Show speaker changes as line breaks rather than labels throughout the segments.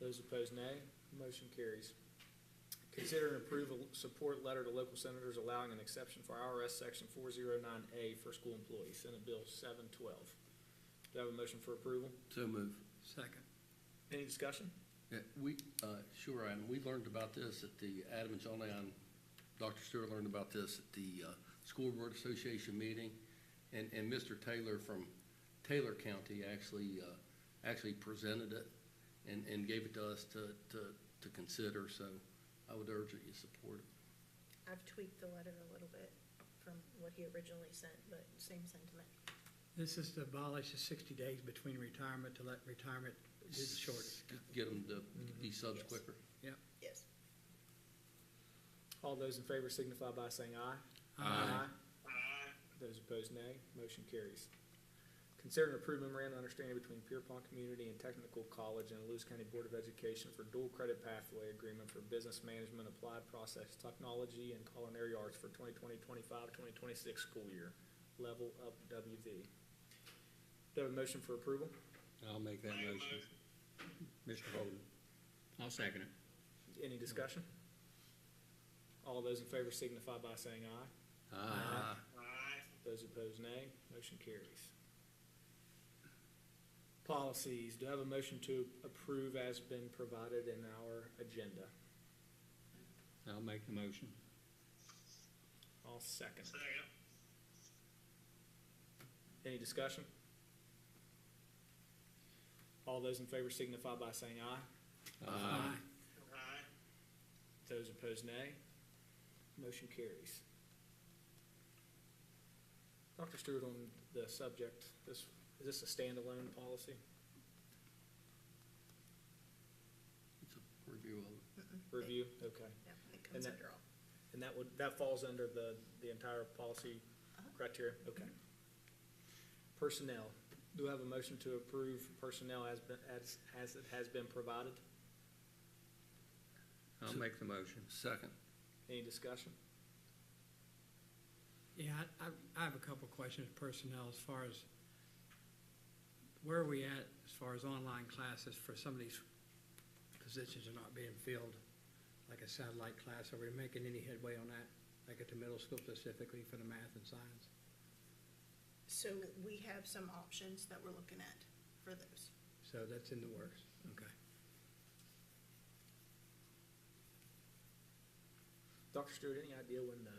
Those opposed, nay. Motion carries. Consider and approve a support letter to local senators allowing an exception for IRS Section 409A for school employees, Senate Bill 712. Do I have a motion for approval?
So move.
Second.
Any discussion?
Yeah, we, uh, sure, and we learned about this at the Adam and John Leon, Dr. Stewart learned about this at the, uh, School Board Association meeting. And, and Mr. Taylor from Taylor County actually, uh, actually presented it and, and gave it to us to, to, to consider, so I would urge that you support it.
I've tweaked the letter a little bit from what he originally sent, but same sentiment.
This is to abolish the sixty days between retirement to let retirement do the shortest.
Get them to be subs
Yes.
quicker.
Yes.
All those in favor signify by saying aye.
Aye.
Those opposed, nay. Motion carries. Consider and approve memorandum of understanding between Pierpont Community and Technical College and the Lewis County Board of Education for dual credit pathway agreement for business management, applied process technology, and culinary arts for 2020-25, 2026 school year. Level up WV. Do I have a motion for approval?
I'll make that motion. Mr. Holden?
I'll second it.
Any discussion? All those in favor signify by saying aye.
Aye.
Those opposed, nay. Motion carries. Policies, do I have a motion to approve as been provided in our agenda?
I'll make the motion.
I'll second. Second. Any discussion? All those in favor signify by saying aye.
Aye.
Those opposed, nay. Motion carries. Dr. Stewart, on the subject, this, is this a standalone policy
It's a review of it.
review? Okay.
Yeah, it
And
comes
that-
under all.
And that would, that falls under the, the entire policy
Uh-huh.
criteria? Okay. Personnel, do I have a motion to approve personnel as, been- as, as it has been provided?
I'll make the motion.
Second.
Any discussion?
Yeah, I, I- I have a couple questions, personnel, as far as, where are we at as far as online classes for some of these positions are not being filled? Like a satellite class, are we making any headway on that, like at the middle school specifically for the math and science?
So we have some options that we're looking at for those.
So that's in the works, okay.
Dr. Stewart, any idea when the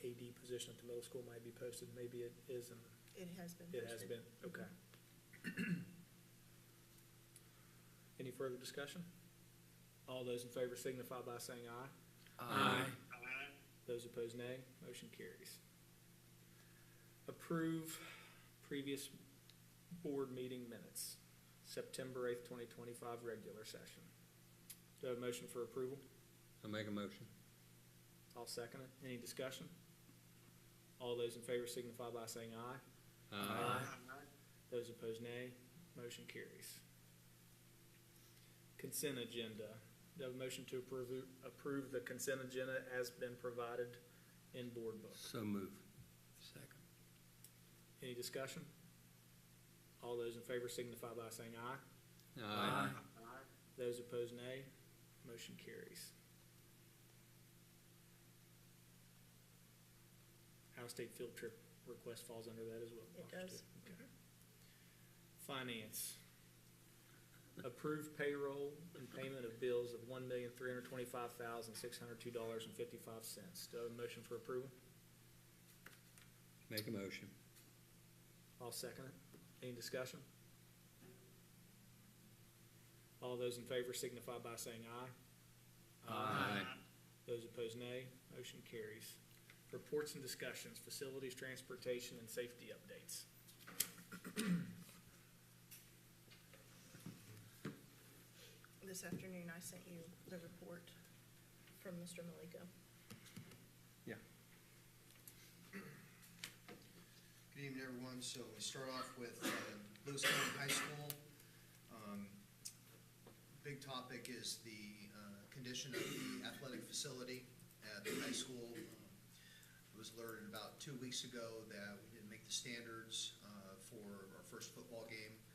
AD position at the middle school might be posted? Maybe it is and
It has been
it has
posted.
been, okay. Any further discussion? All those in favor signify by saying aye. Those opposed, nay. Motion carries. Approve previous board meeting minutes, September eighth, twenty twenty-five, regular session. Do I have a motion for approval?
I'll make a motion.
I'll second it. Any discussion? All those in favor signify by saying aye. Those opposed, nay. Motion carries. Consent agenda. Do I have a motion to approve, approve the consent agenda as been provided in board book?
So move.
Second.
Any discussion? All those in favor signify by saying aye.
Aye.
Those opposed, nay. Motion carries. Out-of-state field trip request falls under that as well.
It
Dr.
does.
Stewart. Okay. Finance. Approved payroll and payment of bills of one million, three hundred twenty-five thousand, six hundred two dollars and fifty-five cents. Do I have a motion for approval?
Make a motion.
I'll second it. Any discussion? All those in favor signify by saying aye. Those opposed, nay. Motion carries. Reports and discussions, facilities, transportation, and safety updates.
This afternoon, I sent you the report from Mr. Malika.
Good evening, everyone. So we start off with uh, Lewis County High School. Um, Big topic is the uh, condition of the athletic facility at the high school. Um, I was alerted about two weeks ago that we didn't make the standards uh, for our first football game. uh,